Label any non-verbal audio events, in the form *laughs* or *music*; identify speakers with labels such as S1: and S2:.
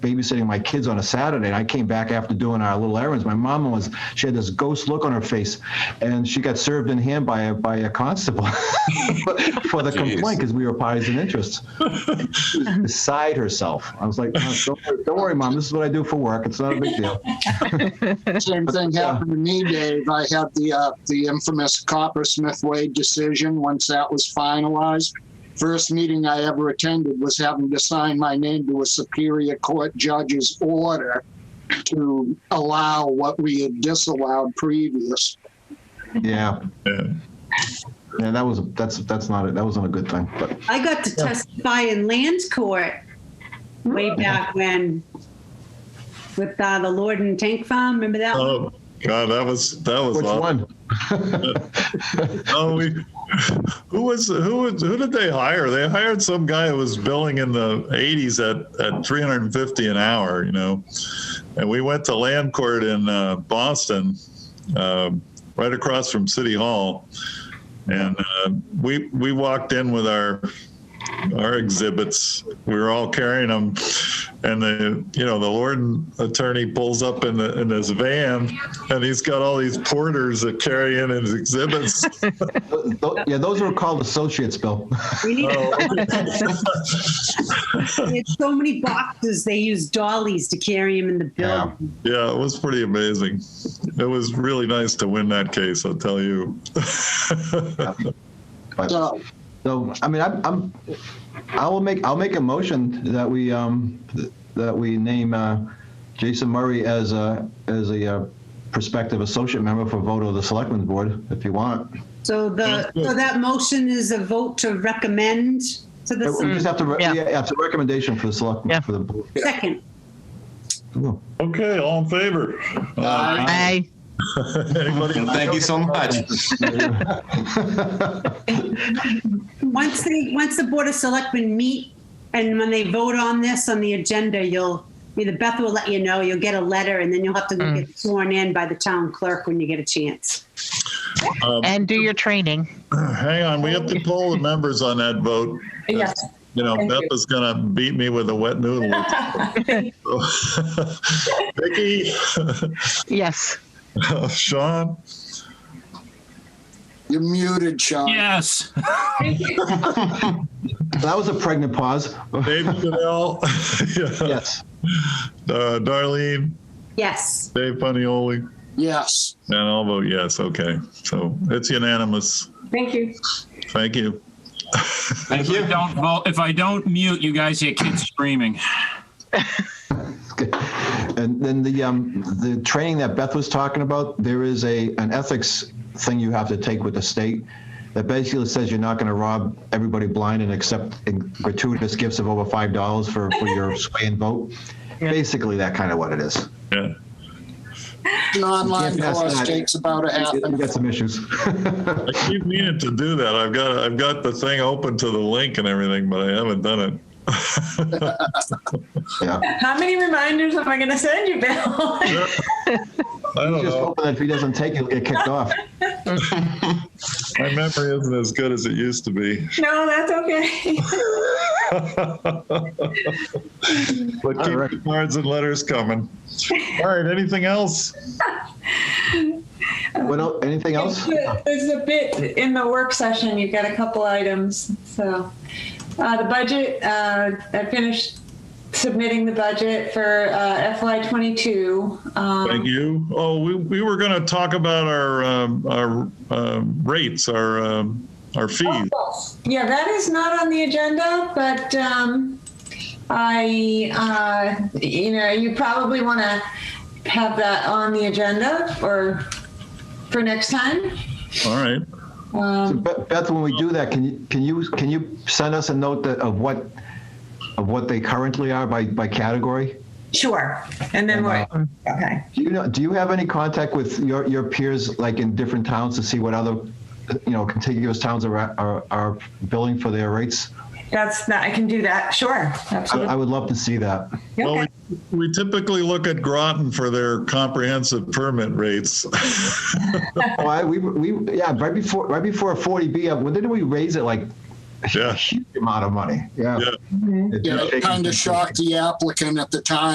S1: babysitting my kids on a Saturday. And I came back after doing our little errands. My mom was, she had this ghost look on her face and she got served in hand by a, by a constable *laughs* for the
S2: Jeez.
S1: complaint because we were parties in interest. She was beside herself. I was like, "No, don't, worry, don't worry, mom. This is what I do for work. It's not a big deal.
S3: Same thing
S1: Yeah.
S3: happened to me, Dave. I had the uh, the infamous Coppersmith Wade decision. Once that was finalized, first meeting I ever attended was having to sign my name to a Superior Court judge's order to allow what we had disallowed previous.
S1: Yeah.
S4: Yeah.
S1: Yeah, that was, that's, that's not it. That wasn't a good thing, but
S5: I got to testify in lands court way back when with uh, the Lord and Tank Farm. Remember that? one?
S4: Oh God, that was that was
S1: which
S4: awful.
S1: one? *laughs*
S4: Oh, we, *laughs* who was who was who did they hire? They hired some guy who was billing in the eighties at at three hundred and fifty an hour, you know. And we went to Land Court in uh, Boston, uh, right across from City Hall, and uh, we we walked in with our our exhibits. We were all carrying them, and the you know the Lord attorney pulls up in the in his van, and he's got all these porters that carry in his exhibits.
S1: Th- th- Yeah, those were called associates, Bill.
S5: We need
S4: Oh. *laughs*
S5: They had so many boxes. They used dollies to carry him in the
S1: Yeah.
S5: building.
S4: yeah, it was pretty amazing. It was really nice to win that case, I'll tell you. *laughs*
S1: But-
S3: So
S1: So, I mean, I'm, I'm, I will make, I'll make a motion that we, um, th- that we name, uh, Jason Murray as a, as a uh, prospective associate member for vote of the selectmen's board, if you want.
S5: So the so that motion is a vote to recommend to the
S1: We just have to, re- yeah,
S6: Yeah.
S1: yeah, it's a recommendation for the
S6: Yeah.
S1: selectmen, for the board.
S5: second.
S1: *laughs* Cool.
S4: okay, all in favor?
S3: Aye.
S6: Aye.
S4: anybody?
S2: Uh, Thank you so much.
S5: Once they once the board of selectmen meet and when they vote on this on the agenda, you'll either Beth will let you know. You'll get a letter, and then you'll have to go get sworn in by the town clerk when you get a chance.
S4: Um, *clears throat*
S6: And do your training.
S4: hang on, we have to poll the members on that vote.
S7: Yes.
S4: You know,
S7: Thank
S4: Beth
S7: you.
S4: is going to beat me with a wet noodle. *laughs*
S7: *laughs*
S4: Vicky,
S6: Yes.
S4: *laughs* Sean,
S3: you're muted, Sean.
S8: Yes.
S1: That was a pregnant pause.
S4: David *laughs* Goodell, yeah.
S1: Yes.
S4: uh, Darlene,
S5: Yes.
S4: Dave Funnyoli,
S3: Yes.
S4: and I'll vote yes. Okay, so it's unanimous.
S7: Thank you.
S4: Thank you.
S2: Thank
S8: If I
S2: you.
S8: don't vote, if I don't mute, you guys hear kids screaming.
S1: *laughs* And then the, um, the training that Beth was talking about, there is a, an ethics thing you have to take with the state that basically says you're not gonna rob everybody blind and accept gratuitous gifts of over five dollars for, for your sway and vote. Basically, that kind of what it is.
S4: Yeah.
S3: An online
S1: You can't pass
S3: course
S1: that.
S3: takes about a half
S1: We
S3: an
S1: got some issues. *laughs*
S4: I keep meaning to do that. I've got I've got the thing open to the link and everything, but I haven't done it.
S1: Yeah.
S7: How many reminders am I going to send you,
S4: *laughs*
S7: Bill? *laughs*
S4: I don't
S1: Just
S4: know.
S1: hoping that if he doesn't take it, he'll get kicked off.
S4: My memory isn't as good as it used to be. *laughs*
S7: no, that's okay.
S4: but keep
S1: right.
S4: the cards and letters coming. All right. Anything else?
S1: What, el- anything else?
S7: There's a bit in the work session, you've got a couple items, so. Uh, the budget, uh, I finished submitting the budget for, uh, FY twenty-two. Um,
S4: Thank you. Oh, we, we were going to talk about our um, our um, rates, our um, our fees.
S7: Yeah, that is not on the agenda, but, um, I, uh, you know, you probably want to have that on the agenda or for next time.
S4: All right.
S1: So
S7: Um,
S1: Beth, Beth, when we do that, can you, can you, can you send us a note that, of what, of what they currently are by, by category? uh,
S7: Sure. And then what? Okay.
S1: Do you know, do you have any contact with your, your peers, like in different towns to see what other, you know, contiguous towns are, are, are billing for their rates?
S7: That's not, I can do that. Sure.
S1: I,
S7: Absolutely.
S1: I would love to see that.
S4: Well,
S7: Okay.
S4: we, we typically look at Groton for their comprehensive permit rates. *laughs*
S1: Oh, I, we, we, yeah, right before, right before a 40B, uh, when did we raise it? Like a
S4: yeah.
S1: huge amount of money. Yeah.
S4: Yeah.
S1: It's
S3: Yeah,
S1: just
S3: it kind
S1: shaking-
S3: of shocked the applicant at the time.